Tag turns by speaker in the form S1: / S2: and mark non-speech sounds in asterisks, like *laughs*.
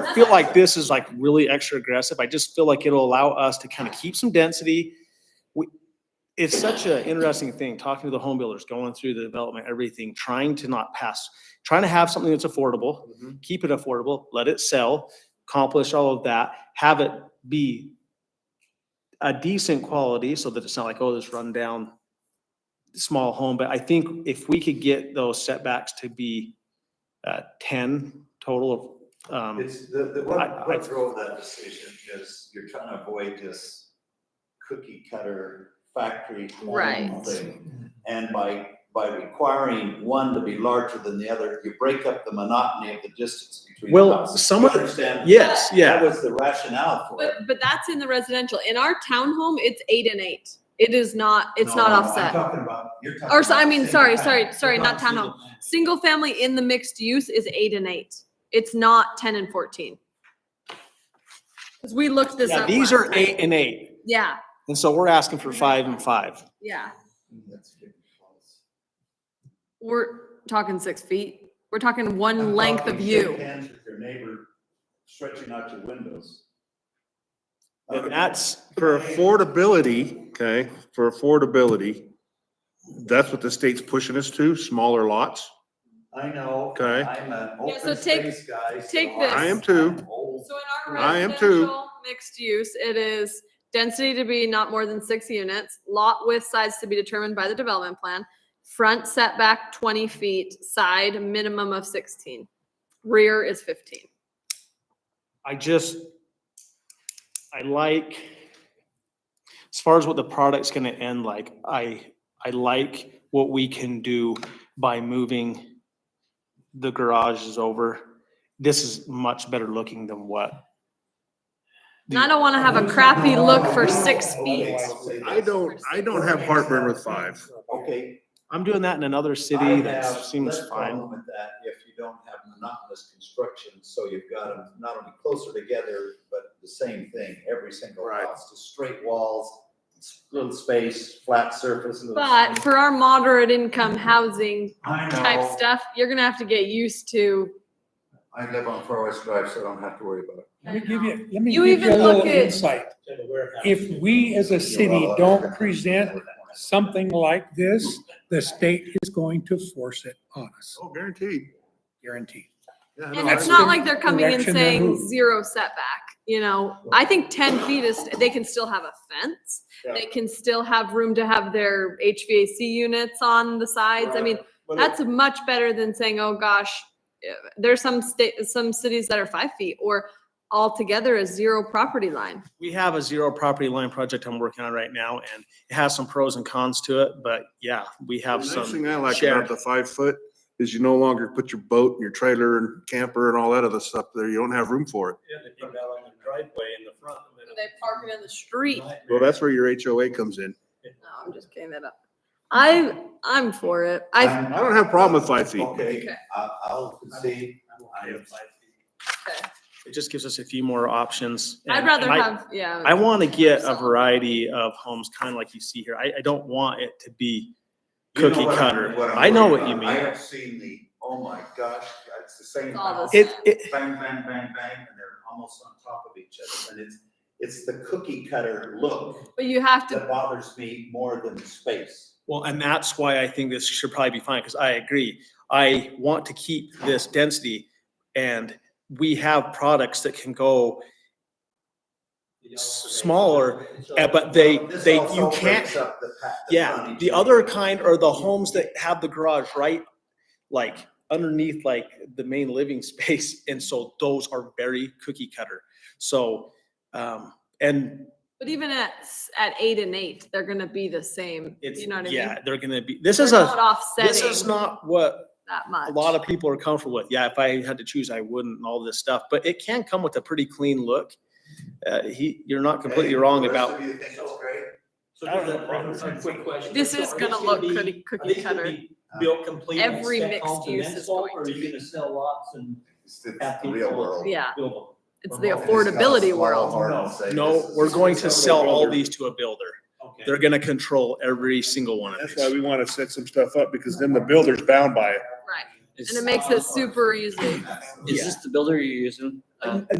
S1: don't feel like this is like really extra aggressive. I just feel like it'll allow us to kind of keep some density. We, it's such an interesting thing, talking to the home builders, going through the development, everything, trying to not pass, trying to have something that's affordable,
S2: Mm-hmm.
S1: keep it affordable, let it sell, accomplish all of that, have it be a decent quality so that it's not like, oh, this rundown small home. But I think if we could get those setbacks to be uh, ten total of, um,
S3: It's the, the,
S1: I-
S3: what,
S1: I-
S3: what drove that decision is you're trying to avoid this cookie cutter factory clone
S2: Right.
S3: thing. And by, by requiring one to be larger than the other, you break up the monotony of the distance between the
S1: Well,
S3: houses.
S1: some
S3: You
S1: of the-
S3: Understand?
S1: yes,
S3: That
S1: yeah.
S3: was the rationale for it.
S2: But, but that's in the residential. In our townhome, it's eight and eight. It is not, it's
S3: No,
S2: not
S3: no, I'm
S2: offset.
S3: talking about, you're talking
S2: Or so, I
S3: about
S2: mean,
S3: single
S2: sorry,
S3: family.
S2: sorry, sorry,
S3: You're
S2: not
S3: single
S2: townhome.
S3: family.
S2: Single family in the mixed use is eight and eight. It's not ten and fourteen. Cause we looked this
S1: Yeah,
S2: up.
S1: these
S2: last
S1: are
S2: night.
S1: eight and eight.
S2: Yeah,
S1: And so we're asking for five and five.
S2: yeah.
S3: Mm, That's good.
S2: We're talking six feet. We're talking
S3: I'm
S2: one length of
S3: talking
S2: you.
S3: shake Hands with your neighbor, stretching out your windows.
S1: And
S3: Okay.
S1: that's
S4: For affordability, okay, for affordability, that's what the state's pushing us to, smaller lots.
S3: I know.
S4: Okay.
S3: I'm an
S2: Yeah, so
S3: open
S2: take-
S3: space guy. so
S2: take this.
S4: I am too.
S3: I'm old.
S2: So in our
S4: I am too.
S2: residential mixed use, it is density to be not more than six units, lot width size to be determined by the development plan, front setback twenty feet, side minimum of sixteen, rear is fifteen.
S1: I just, I like, as far as what the product's gonna end like, I, I like what we can do by moving the garages over. This is much better looking than what.
S2: And I don't wanna have a crappy look for six
S3: Okay,
S2: feet.
S3: I'll say
S4: I
S3: this.
S4: don't, I don't have heartburn with five.
S3: Okay.
S1: I'm doing that in another
S3: I
S1: city that
S3: have
S1: seems
S3: less problem
S1: fine.
S3: With that, if you don't have monotonous construction, so you've got them not only closer together, but the same thing, every single
S4: Right.
S3: house, just straight walls, little space, flat surface. little
S2: But
S3: space.
S2: for our moderate income housing
S3: I
S2: type
S3: know.
S2: stuff, you're gonna have to get used to.
S3: I live on Far West Drive, so I don't have to worry about it.
S5: Let me give you, let
S2: You
S5: me give you a
S2: even
S5: little
S2: look at-
S5: insight. If we as a city don't present something like this, the state is going to force it on us,
S4: Oh, guaranteed.
S5: guaranteed.
S4: Yeah, I
S2: And
S4: know.
S2: it's not like they're coming and
S5: Direction they're
S2: saying
S5: moving.
S2: zero setback, you know, I think ten feet is, they can still have a fence. They can still have room to have their HVAC units on the sides, I mean,
S3: But
S2: that's much better than saying, oh gosh. eh, There's some state, some cities that are five feet or altogether a zero property line.
S1: We have a zero property line project I'm working on right now and it has some pros and cons to it, but yeah, we have
S4: The
S1: some.
S4: Next thing I like
S1: shared-
S4: about the five foot is you no longer put your boat and your trailer and camper and all that other stuff there. You don't have room for it.
S6: Yeah, they come out on the driveway in the front. and then-
S2: They park it in the street.
S4: Well, that's where your HOA comes in.
S2: No, I'm just kidding that up. I, I'm for it. I,
S4: I don't have a problem with five feet.
S3: Okay,
S2: Okay.
S3: I, I'll concede. I am-
S1: It just gives us a few more options.
S2: I'd
S1: and-
S2: rather
S1: and I-
S2: have, yeah.
S1: I want to get a
S2: Yourself.
S1: variety of homes, kind of like you see here. I, I don't want it to be
S3: You know
S1: cookie
S3: what I'm-
S1: cutter.
S3: I'm
S1: I know
S3: worried
S1: what you
S3: about.
S1: mean.
S3: I have seen the, oh my gosh, it's the same
S2: It's all the
S3: house.
S2: same.
S1: It, it,
S3: Bang, bang, bang, bang, and they're almost on top of each other. And it's, it's the cookie cutter look
S2: But you have to
S3: that bothers me more than the space.
S1: well, and that's why I think this should probably be fine, because I agree. I want to keep this density and we have products that can go, Smaller, eh, but they,
S3: This
S1: they,
S3: also
S1: you
S3: breaks
S1: can't.
S3: up the pa- the
S1: Yeah,
S3: frontage.
S1: the other kind are the homes that have the garage right, like underneath like the main living *laughs* space. And so those are very cookie cutter. So, um, and
S2: But even at, s- at eight and eight, they're gonna be the same,
S1: it's,
S2: you know what I mean?
S1: yeah, they're gonna be, this
S2: They're
S1: is
S2: not
S1: a, this is
S2: offsetting
S1: not what
S2: that
S1: a
S2: much.
S1: lot of people are comfortable with. Yeah, if I had to choose, I wouldn't and all this stuff, but it can come with a pretty clean look. Uh, he, you're not completely
S3: Hey,
S1: wrong
S3: the rest
S1: about,
S3: of you think it's great?
S6: So
S1: I don't have a problem with
S6: just a quick question.
S2: This
S6: So
S2: is
S6: are
S2: gonna
S6: these
S2: look
S6: be-
S2: pretty
S6: are
S2: cookie
S6: these gonna
S2: cutter.
S6: be Built complete. and
S2: Every
S6: spec
S2: mixed
S6: homes and
S2: use
S6: then
S2: is
S6: sold,
S2: going
S6: Or are
S2: to
S6: you gonna sell lots and
S3: It's it's
S6: have
S3: the
S6: people?
S3: real world.
S2: Yeah,
S6: build them?
S2: it's the
S6: Well, it's
S2: affordability world.
S1: no, we're going to sell all these to a builder.
S6: Okay.
S1: They're gonna control every single one of
S4: That's why
S1: these.
S4: we want to set some stuff up because then the builder's bound by it.
S6: Um,
S2: Right, and it makes it super easy.
S7: Is
S1: Yeah.
S7: this the builder you're using?
S2: Uh,
S6: a-